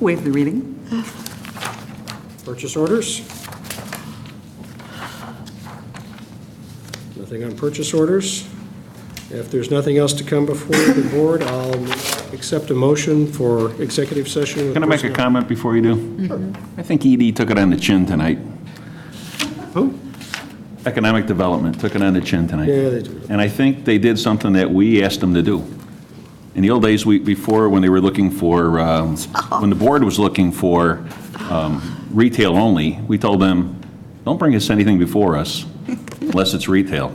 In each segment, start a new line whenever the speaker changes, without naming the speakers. Waive the reading.
Purchase orders? Nothing on purchase orders. If there's nothing else to come before the board, I'll accept a motion for executive session. with
Can I make a
personnel.
comment before you do? I think ED took it on the chin tonight.
Who?
Economic Development took it on the chin tonight.
Yeah, they do.
And I think they did something that we asked them to do. In the old days, we, before, when they were looking for, um, when the board was looking for um, retail only, we told them, don't bring us anything before us unless it's retail.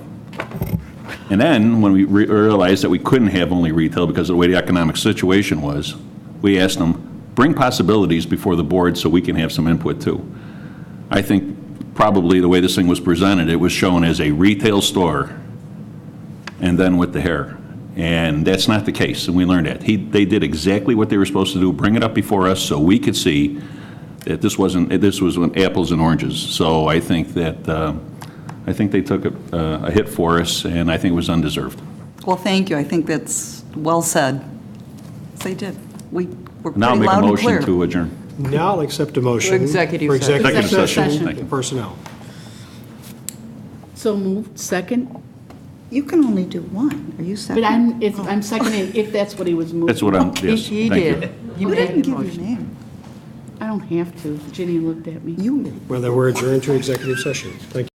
And then, when we re- realized that we couldn't have only retail because of the way the economic situation was, we asked them, bring possibilities before the board so we can have some input too. I think probably the way this thing was presented, it was shown as a retail store and then with the hair. And that's not the case, and we learned that. He, they did exactly what they were supposed to do, bring it up before us so we could see that this wasn't, that this was apples and oranges. So I think that, uh, I think they took a, uh, a hit for us, and I think it was undeserved.
Well, thank you. I think that's well said. Yes, They did. We were pretty
Now I'll make a
loud and
motion
clear.
to adjourn.
Now I'll accept a motion.
For executive
for
session.
executive
Executive session.
session
Thank you.
with personnel.
So moved, second?
You can only do one. Are you second?
But I'm, if, I'm seconding, if that's what he was moving.
That's what I'm, yes,
He
thank you.
did.
You didn't give your name.
I don't have to. Jenny looked at me.
You did.
Well, then we're adjourned to executive session. Thank you.